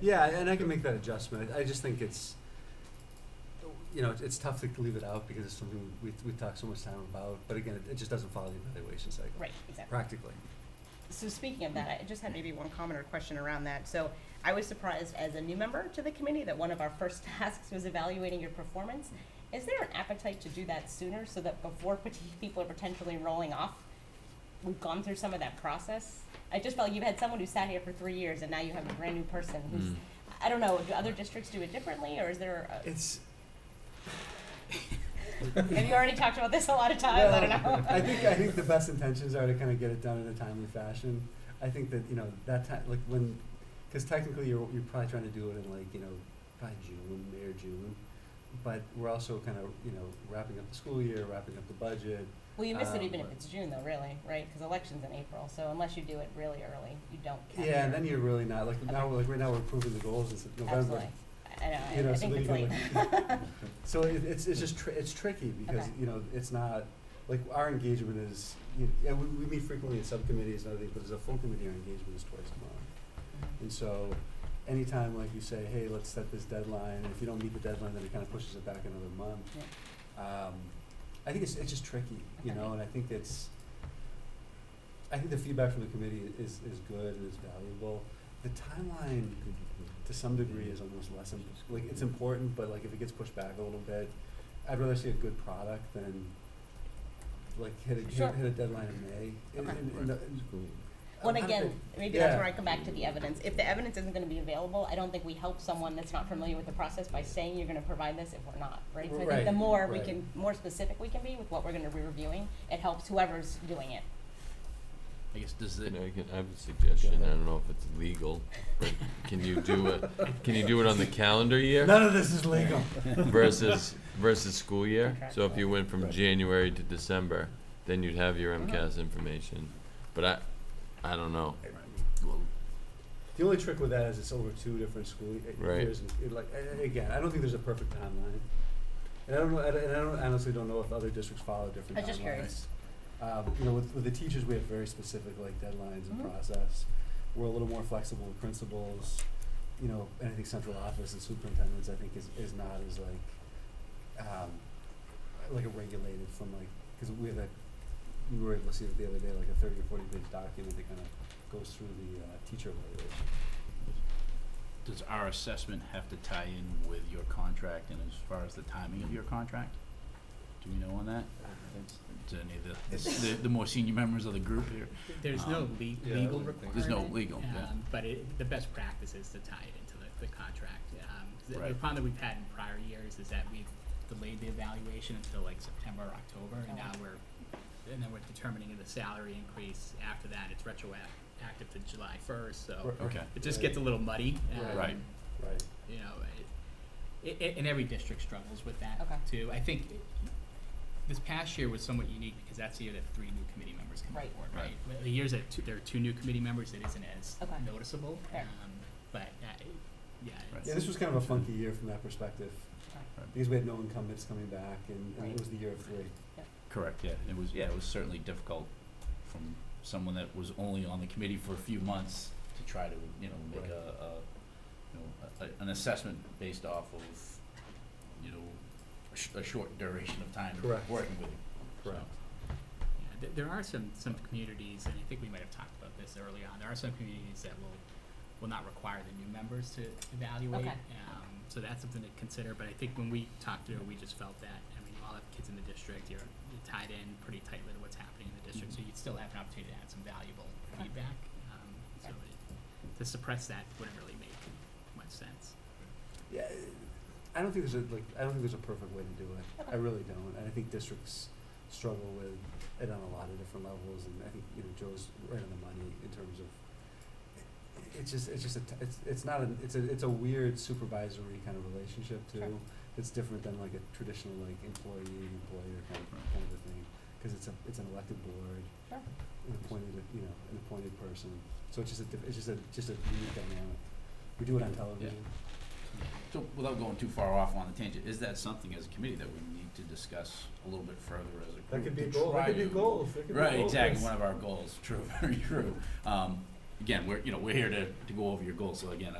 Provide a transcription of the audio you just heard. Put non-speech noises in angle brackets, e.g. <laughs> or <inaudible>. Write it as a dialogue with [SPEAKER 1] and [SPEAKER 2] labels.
[SPEAKER 1] Yeah, and I can make that adjustment. I I just think it's, you know, it's tough to leave it out because it's something we, we talk so much time about, but again, it- it just doesn't follow the evaluation cycle,
[SPEAKER 2] Right, exactly.
[SPEAKER 1] practically.
[SPEAKER 2] So speaking of that, I just had maybe one comment or question around that. So I was surprised as a new member to the committee that one of our first <laughs> tasks was evaluating your performance. Is there an appetite to do that sooner so that before <laughs> pot- people are potentially rolling off, we've gone through some of that process? I just felt you've had someone who sat here for three years and now you have a brand new person who's, I don't know, do other districts do it differently or is there, a-
[SPEAKER 1] <laughs> It's.
[SPEAKER 2] have you already talked about this a lot of times? I don't know.
[SPEAKER 1] I think, I think the best intentions are to kind of get it done in a timely fashion. I think that, you know, that time, like when, because technically you're, you're probably trying to do it in like, you know, by June, May or June. But we're also kind of, you know, wrapping up the school year, wrapping up the budget.
[SPEAKER 2] Well, you miss it
[SPEAKER 1] Um,
[SPEAKER 2] even if it's June though, really, right? Because election's in April, so unless you do it really early, you don't. count
[SPEAKER 1] Yeah,
[SPEAKER 2] your-
[SPEAKER 1] and then you're really not, like now, we're- like right now we're approving the goals in November.
[SPEAKER 2] Absolutely. I- I know, I-
[SPEAKER 1] You know,
[SPEAKER 2] I
[SPEAKER 1] so
[SPEAKER 2] think
[SPEAKER 1] then
[SPEAKER 2] it's
[SPEAKER 1] you
[SPEAKER 2] late.
[SPEAKER 1] can
[SPEAKER 2] <laughs>
[SPEAKER 1] So it, it's, it's just, tr- it's tricky because,
[SPEAKER 2] Okay.
[SPEAKER 1] you know, it's not, like, our engagement is, you, yeah, we, we meet frequently in subcommittees and other things, but as a full committee, our engagement is twice a month. And so, anytime like you say, hey, let's set this deadline, and if you don't meet the deadline, then it kind of pushes it back another month. Um, I think it's, it's just tricky, you
[SPEAKER 2] Okay.
[SPEAKER 1] know, and I think it's, I think the feedback from the committee is, is good and is valuable. The timeline, to some degree, is almost less, im- like, it's important, but like, if it gets pushed back a little bit, I'd rather see a good product than, like, hit a,
[SPEAKER 2] Sure.
[SPEAKER 1] hit, hit a deadline in May. And-
[SPEAKER 2] Okay.
[SPEAKER 1] and- and- and-
[SPEAKER 2] Well, and
[SPEAKER 1] I don't
[SPEAKER 2] again,
[SPEAKER 1] think-
[SPEAKER 2] maybe that's
[SPEAKER 1] yeah.
[SPEAKER 2] where I come back to the evidence. If the evidence isn't gonna be available, I don't think we help someone that's not familiar with the process by saying you're gonna provide this if we're not, right? So I think the
[SPEAKER 1] Right,
[SPEAKER 2] more we
[SPEAKER 1] right.
[SPEAKER 2] can, more specific we can be with what we're gonna be reviewing, it helps whoever's doing it.
[SPEAKER 3] I guess does it,
[SPEAKER 4] Can I, can, I have a suggestion,
[SPEAKER 3] Go
[SPEAKER 4] I
[SPEAKER 3] ahead.
[SPEAKER 4] don't know if it's legal, but can you do it, can you do it on the calendar year
[SPEAKER 1] None of this is legal.
[SPEAKER 4] versus, versus school year? So if
[SPEAKER 2] Contractual.
[SPEAKER 4] you went from
[SPEAKER 3] Right.
[SPEAKER 4] January to December, then you'd have your
[SPEAKER 2] Mhm.
[SPEAKER 4] MCAS information, but I, I don't know.
[SPEAKER 1] The only trick with that is it's over two different school y- uh,
[SPEAKER 4] Right.
[SPEAKER 1] years. And it, like a- a- again, I don't think there's a perfect timeline, and I don't know. And I and I don't, honestly don't know if other districts follow different.
[SPEAKER 2] I was just
[SPEAKER 1] timelines.
[SPEAKER 2] curious.
[SPEAKER 1] Um, you know, with, with the teachers, we have very specific like deadlines and
[SPEAKER 2] Mhm.
[SPEAKER 1] process. We're a little more flexible with principals. You know, and I think central office and superintendents, I think, is, is not as like, um, like a regulated from like, because we have that, we were able to see it the other day, like a thirty or forty page document that kind of goes through the, uh, teacher evaluation.
[SPEAKER 3] does our assessment have to tie in with your contract and as far as the timing of your contract? Do we know on that? Do any of the, the, the more senior members of the group here?
[SPEAKER 5] There's no
[SPEAKER 3] Um,
[SPEAKER 5] le-
[SPEAKER 1] yeah, I
[SPEAKER 5] legal
[SPEAKER 1] wouldn't think
[SPEAKER 5] requirement.
[SPEAKER 3] There's no legal, yeah.
[SPEAKER 5] um, But it, the best practice is to tie it into the, the contract. Um, the- the
[SPEAKER 3] Right.
[SPEAKER 5] problem that we've had in prior years is that we've delayed the evaluation until like September or October, and now we're, and then we're determining the salary increase after that, it's retroactive to July first, so
[SPEAKER 1] Right.
[SPEAKER 3] Okay,
[SPEAKER 5] Oh, it just gets a little muddy.
[SPEAKER 1] Right.
[SPEAKER 3] Right.
[SPEAKER 5] um,
[SPEAKER 1] Right.
[SPEAKER 5] you know, it, it, and every district struggles with that
[SPEAKER 2] Okay.
[SPEAKER 5] too. I think this past year was somewhat unique because that's the year that three new committee members come
[SPEAKER 2] Right.
[SPEAKER 5] on board,
[SPEAKER 3] Right.
[SPEAKER 5] right? Well, The years that two, there are two new committee members, it isn't as
[SPEAKER 2] Okay.
[SPEAKER 5] noticeable.
[SPEAKER 2] Fair.
[SPEAKER 5] Um, but uh, yeah,
[SPEAKER 3] Right.
[SPEAKER 1] Yeah,
[SPEAKER 5] it's,
[SPEAKER 1] this was kind of a funky year from that perspective, because we had no incumbents coming back, and, and
[SPEAKER 2] Right.
[SPEAKER 1] it was the year of three.
[SPEAKER 3] correct, yeah, it was, yeah, it was certainly difficult from someone that was only on the committee for a few months to try to, you know, make
[SPEAKER 1] Right.
[SPEAKER 3] a, a, you know, a- a, an assessment based off of, you know, a sh- a short duration of time
[SPEAKER 1] Correct.
[SPEAKER 3] working with you. So,
[SPEAKER 5] yeah, th- there are some, some communities, and I think we might have talked about this early on, there are some communities that will, will not require the new members to evaluate.
[SPEAKER 2] Okay.
[SPEAKER 5] Um, so that's something to consider, but I think when we talked through, it, we just felt that, I mean, you all have kids in the district, you're you're tied in pretty tightly to what's happening in the district, so you'd still have an opportunity to add some valuable
[SPEAKER 2] Mm-hmm. Okay.
[SPEAKER 5] feedback. Um, so it, to suppress that wouldn't really make much sense.
[SPEAKER 1] Yeah, I don't think there's a, like, I don't think there's a perfect way to do it. I
[SPEAKER 2] Okay.
[SPEAKER 1] really don't, and I think districts struggle with it on a lot of different levels, and I think, you know, Joe's right on the money in terms of, it- it's just, it's just a, t- it's, it's not a, it's a, it's a weird supervisory kind of relationship
[SPEAKER 2] Sure.
[SPEAKER 1] too. It's different than like a traditional like employee, employer kind of,
[SPEAKER 3] Right.
[SPEAKER 1] kind of a thing, because it's a, it's an elected board.
[SPEAKER 2] Sure.
[SPEAKER 1] an appointed, you know, an appointed person. So it's just a, diff- it's just a, just a unique dynamic. We do it on television.
[SPEAKER 3] So without going too far off on the tangent, is that something as a committee that we need to discuss a little bit further as a group? to try to- Right, exactly, <laughs> one of our goals, true, very true. Um, again, we're, you know, we're here to, to go over your goals, so again,